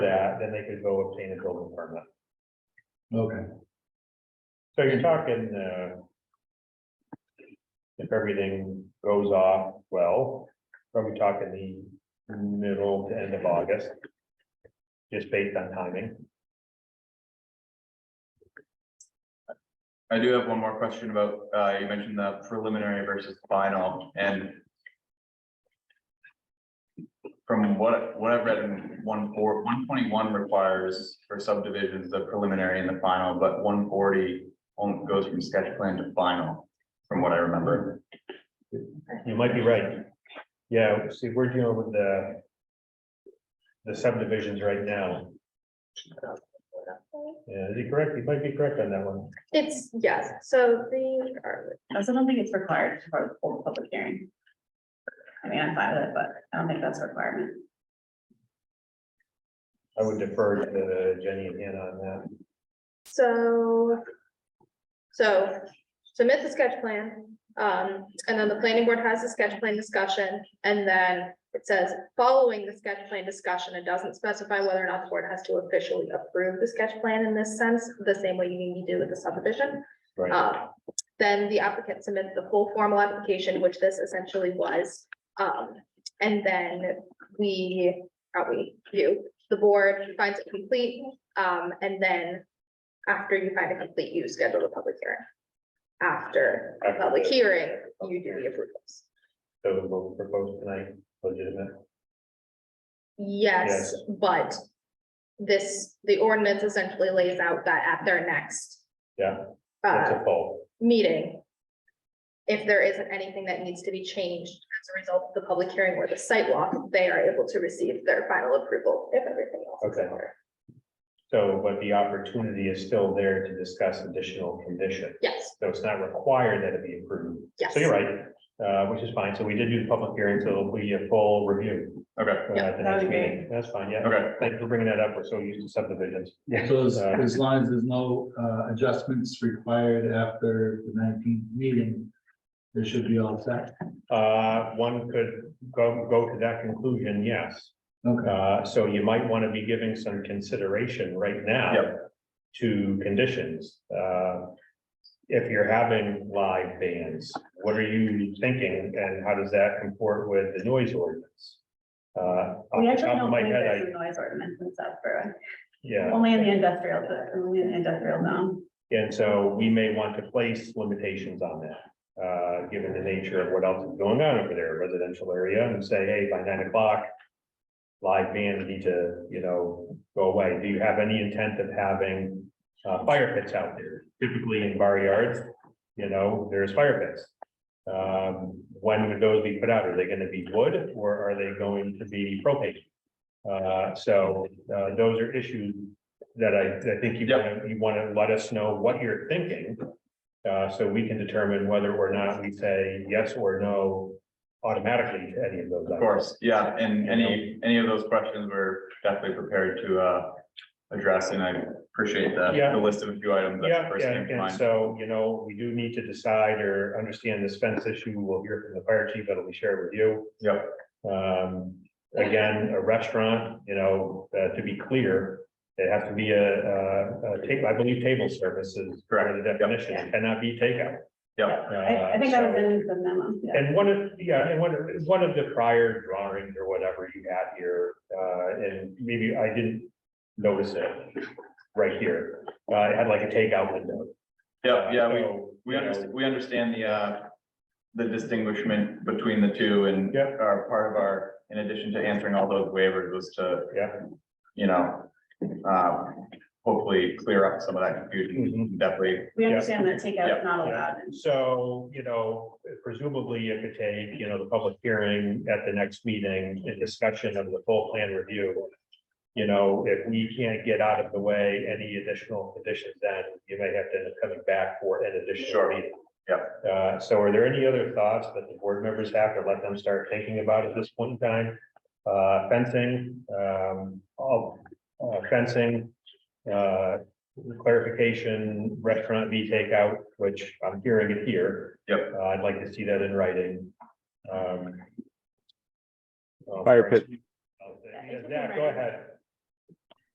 then they could go obtain a building permit. Okay, So you're talking, uh. If everything goes off well, probably talking the middle to end of August. Just based on timing. I do have one more question about, uh, you mentioned the preliminary versus final and. From what, what I've read in one four, one twenty-one requires for subdivisions, the preliminary and the final, but one forty. Only goes from sketch plan to final, from what I remember. You might be right. Yeah, see, we're dealing with the. The subdivisions right now. Yeah, is he correct? He might be correct on that one. It's, yes, so the, are- I also don't think it's required for a full public hearing. I mean, I'm fine with it, but I don't think that's a requirement. I would defer to Jenny and Hannah on that. so. So submit the sketch plan, um, and then the planning board has the sketch plan discussion, and then it says, following the sketch plan discussion, it doesn't specify whether or not the board has to officially approve the sketch plan in this sense, the same way you need to do with the subdivision. Right, Um, Then the applicant submits the full formal application, which this essentially was. Um, And then we, are we, you, the board finds it complete. um, And then after you find it complete, you schedule a public hearing. After a After public the- hearing, you do the approvals. so what we proposed tonight, legitimate. Yes, but this, the ordinance essentially lays out that at their next. Yeah, uh, That's a fault. meeting. If there isn't anything that needs to be changed as a result of the public hearing or the site walk, they are able to receive their final approval if everything else is in Okay. order. So, but the opportunity is still there to discuss additional condition. Yes, So it's not required that it be approved. yes. So you're right, uh, which is fine. So we did do the public hearing, so it'll be a full review. Okay, uh, Yeah, at the that would next be great. meeting. That's fine, yeah. okay, Thanks for bringing that up. We're so used to subdivisions. so as, Uh, as long as there's no, uh, adjustments required after the nineteenth meeting, there should be all set. Uh, one could go, go to that conclusion, yes. Okay, Uh, so you might want to be giving some consideration right now. To conditions, uh. If you're having live bands, what are you thinking and how does that comport with the noise ordinance? Uh, off We the actually top of don't my believe head, I, there's a noise ordinance in South Berwick, yeah, uh, only in the industrial, only in the industrial zone. and so we may want to place limitations on that. Uh, given the nature of what else is going on over there, residential area, and say, hey, by nine o'clock. Live bands need to, you know, go away. Do you have any intent of having uh, fire pits out there? Typically in bar yards, you know, there's fire pits. Um, when would those be put out? Are they gonna be wood or are they going to be propane? Uh, so, uh, those are issues that I, I think you wanna, you wanna let us know what you're thinking. Uh, so we can determine whether or not we say yes or no automatically to any of those. of course, yeah, and any, any of those questions we're definitely prepared to, uh. Address and I appreciate the, Yeah. the list of a few items that Yeah, first yeah, came to and mind. so, you know, we do need to decide or understand this fence issue. We'll hear from the fire chief, that'll be shared with you. Yep. Um, again, a restaurant, you know, uh, to be clear, it has to be a, a, a table, I believe table service is part of the definition, it cannot be takeout. Yep. I, I think that was in the memo, yeah. And one of, Uh, yeah, and one, of- one of the prior drawings or whatever you had here, uh, and maybe I didn't notice it right here. Uh, it had like a takeout window. Uh, Yeah, yeah, we, So, we you know, understand, we understand the, uh, the distinguishment between the two and Yeah. our, part of our, in addition to answering all those waivers was to, Yeah. you know, uh, hopefully clear up some of Mm-hmm. that confusion, definitely. We understand that takeout Yeah. is not Yeah. allowed. in- So, you know, presumably you could take, you know, the public hearing at the next meeting, a discussion of the full plan review. You know, if we can't get out of the way any additional conditions, then you may have to end up coming back for an additional Sure. meeting. Uh, so are there any other thoughts that the board members have to let them start thinking about at this point in time? Uh, fencing, um, all, uh, fencing, uh, clarification, restaurant v takeout, which I'm hearing it here. Yep. Uh, I'd like to see that in writing. Um, well, Fire pit. Yeah, go ahead.